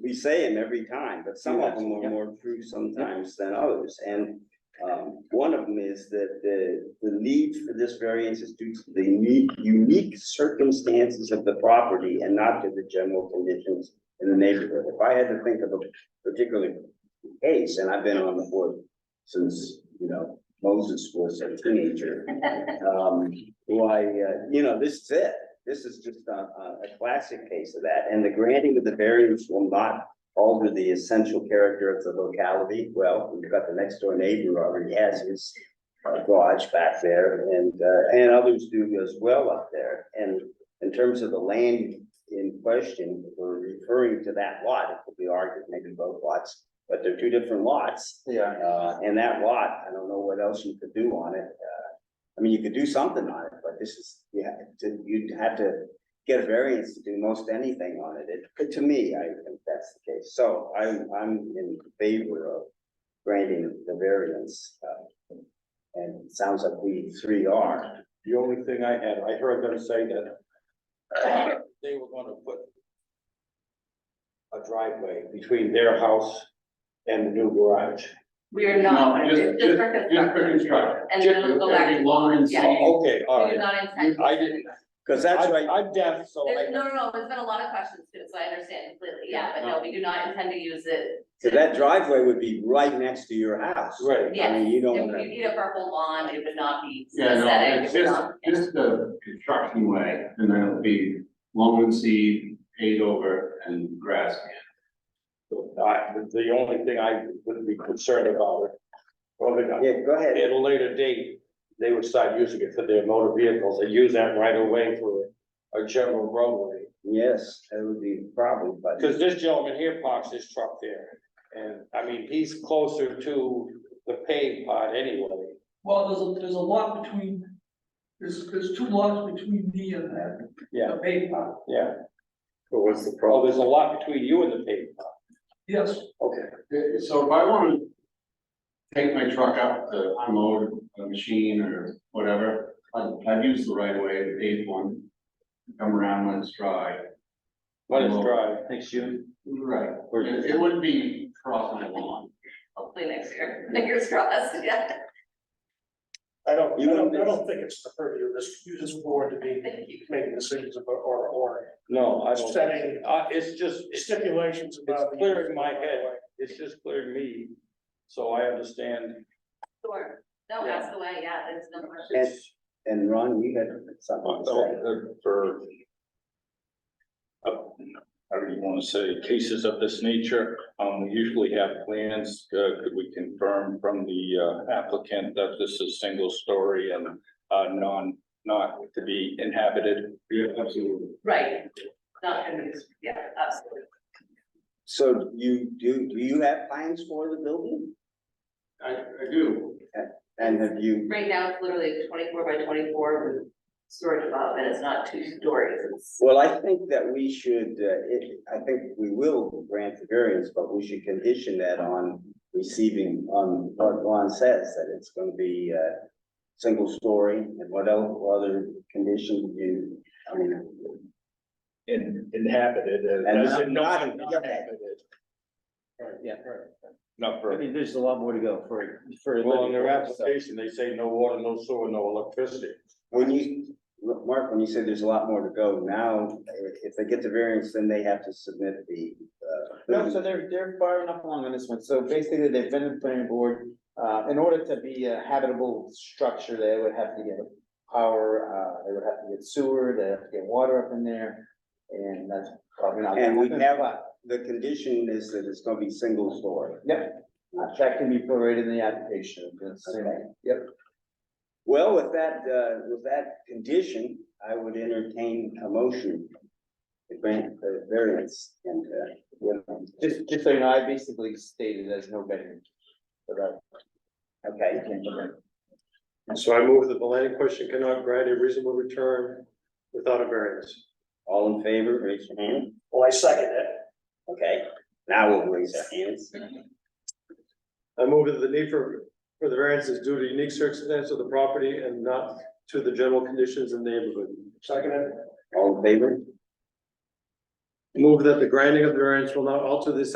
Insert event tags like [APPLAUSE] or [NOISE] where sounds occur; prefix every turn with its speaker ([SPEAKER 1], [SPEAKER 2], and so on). [SPEAKER 1] we say them every time, but some of them
[SPEAKER 2] Yeah.
[SPEAKER 1] are more true sometimes than others, and. Um, one of them is that the, the need for this variance is due to the unique, unique circumstances of the property and not to the general conditions in the neighborhood. If I had to think of a particular case, and I've been on the board since, you know, Moses was a teenager. Um, why, uh, you know, this is it. This is just a, a, a classic case of that, and the granting of the variance will not alter the essential character of the locality. Well, we've got the next door neighbor who already has his uh, garage back there, and, uh, and others do as well up there. And in terms of the land in question, we're referring to that lot, it could be argued, maybe both lots, but they're two different lots.
[SPEAKER 2] Yeah.
[SPEAKER 1] Uh, and that lot, I don't know what else you could do on it. Uh, I mean, you could do something on it, but this is, you have to, you'd have to get a variance to do most anything on it. It, to me, I think that's the case. So I'm, I'm in favor of granting the variance. uh, And it sounds like we three are.
[SPEAKER 2] The only thing I had, I heard them say that they were gonna put a driveway between their house and the new garage.
[SPEAKER 3] We are not,
[SPEAKER 4] No,
[SPEAKER 3] just
[SPEAKER 4] just,
[SPEAKER 3] just for
[SPEAKER 4] just, just for
[SPEAKER 3] construction.
[SPEAKER 4] construction.
[SPEAKER 3] And then it'll go back.
[SPEAKER 4] Every line and
[SPEAKER 3] Yeah.
[SPEAKER 4] song.
[SPEAKER 2] Oh, Okay, all
[SPEAKER 3] We
[SPEAKER 2] right.
[SPEAKER 3] do not intend. to
[SPEAKER 2] I
[SPEAKER 3] do
[SPEAKER 2] didn't-
[SPEAKER 3] that.
[SPEAKER 1] Because that's
[SPEAKER 2] I-
[SPEAKER 1] right,
[SPEAKER 2] I'm deaf, so
[SPEAKER 3] There's,
[SPEAKER 2] I,
[SPEAKER 3] no, no, no, there's been a lot of questions too, so I understand completely, yeah, but no, we do not intend to use it.
[SPEAKER 1] so that driveway would be right next to your house.
[SPEAKER 2] right.
[SPEAKER 3] Yes,
[SPEAKER 1] I mean, you
[SPEAKER 3] if
[SPEAKER 1] don't
[SPEAKER 3] we
[SPEAKER 1] wanna-
[SPEAKER 3] need it for a whole lawn, it would not be
[SPEAKER 4] Yeah, no,
[SPEAKER 3] aesthetic,
[SPEAKER 4] it's
[SPEAKER 3] it would
[SPEAKER 4] just,
[SPEAKER 3] not.
[SPEAKER 4] just the construction way, and then it'll be lawn and seed, paved over, and grass.
[SPEAKER 2] I, the only thing I would be concerned about, it, well, they-
[SPEAKER 1] Yeah, go ahead.
[SPEAKER 2] at a later date, they would start using it for their motor vehicles, they use that right away for a general roadway.
[SPEAKER 1] Yes, that would be a problem, but.
[SPEAKER 2] Cause this gentleman here parks his truck there, and I mean, he's closer to the paved part anyway.
[SPEAKER 5] Well, there's a, there's a lot between, there's, there's two lots between me and that,
[SPEAKER 2] Yeah,
[SPEAKER 5] the main lot,
[SPEAKER 2] yeah,
[SPEAKER 1] But what's the
[SPEAKER 2] well, there's a lot between you and the paved part.
[SPEAKER 5] yes.
[SPEAKER 2] Okay.
[SPEAKER 4] Uh, So if I wanna take my truck out to unload a machine or whatever, I'd, I'd use the right way, the paved one. Come around when it's dry.
[SPEAKER 2] Let us drive.
[SPEAKER 6] Next June,
[SPEAKER 4] Right.
[SPEAKER 2] Or-
[SPEAKER 4] It, it wouldn't be cross my lawn.
[SPEAKER 3] Hopefully next year, [LAUGHS] fingers crossed, yeah,
[SPEAKER 7] I don't, I
[SPEAKER 1] You
[SPEAKER 7] don't,
[SPEAKER 1] don't-
[SPEAKER 7] I don't think it's the purview of this, this board to be
[SPEAKER 3] thank you.
[SPEAKER 7] making decisions about, or, or
[SPEAKER 2] No, I don't,
[SPEAKER 7] setting
[SPEAKER 2] uh, it's just, it's,
[SPEAKER 7] stipulations about.
[SPEAKER 2] it's clear in my head. it's just clear to me, so I understand.
[SPEAKER 3] Sure, no,
[SPEAKER 2] Yeah.
[SPEAKER 3] that's the way, yeah, there's no question.
[SPEAKER 1] And, and Ron, you had something to say.
[SPEAKER 8] for uh, however you want to say, cases of this nature, um, we usually have plans, uh, could we confirm from the uh, applicant that this is single story and uh, non, not to be inhabited?
[SPEAKER 4] Yeah, absolutely.
[SPEAKER 3] Right, not gonna use, yeah, absolutely.
[SPEAKER 1] So you, do, do you have plans for the building?
[SPEAKER 4] I, I do.
[SPEAKER 1] And have you,
[SPEAKER 3] Right now, it's literally twenty-four by twenty-four with storage above, and it's not two stories, it's.
[SPEAKER 1] well, I think that we should, uh, it, I think we will grant the variance, but we should condition that on receiving, on what Ron says, that it's gonna be, uh, single story, and what else, what other conditions you, I mean,
[SPEAKER 8] In- Inhabited. uh,
[SPEAKER 1] And
[SPEAKER 8] as in
[SPEAKER 1] not-
[SPEAKER 8] non-
[SPEAKER 1] not-
[SPEAKER 8] non-inhabited.
[SPEAKER 6] yeah,
[SPEAKER 8] Not
[SPEAKER 6] I
[SPEAKER 8] for,
[SPEAKER 6] mean, there's a lot more to go for, for. a
[SPEAKER 2] Well, in
[SPEAKER 6] living
[SPEAKER 2] their
[SPEAKER 6] quarters, so.
[SPEAKER 2] application, they say no water, no sewer, no electricity.
[SPEAKER 1] When you, look, Mark, when you say there's a lot more to go, now, if- if they get the variance, then they have to submit the, uh.
[SPEAKER 6] No, so they're, they're far enough along on this one, so basically, they've been to the planning board, uh, in order to be a habitable structure, they would have to get power, uh, they would have to get sewer, they have to get water up in there, and that's probably not.
[SPEAKER 1] And we have-
[SPEAKER 6] But
[SPEAKER 1] The condition is that it's gonna be single story.
[SPEAKER 6] Uh, That can be prorated in the application, it's the same. yep.
[SPEAKER 1] Well, with that, uh, with that condition, I would entertain a motion to grant the variance and, uh, you know,
[SPEAKER 6] Just, just so you know, I basically stated there's no bedroom. So that-
[SPEAKER 1] okay.
[SPEAKER 7] So I move that the land question cannot grant a reasonable return without a variance.
[SPEAKER 1] All in favor, raise your hand.
[SPEAKER 7] Well, Oh, I second it.
[SPEAKER 1] Okay, now we'll raise our hands.
[SPEAKER 7] I move that the need for, for the variance is due to unique circumstances of the property and not to the general conditions in the neighborhood. Second it.
[SPEAKER 1] All in favor?
[SPEAKER 2] Move that the granting of the variance will not alter the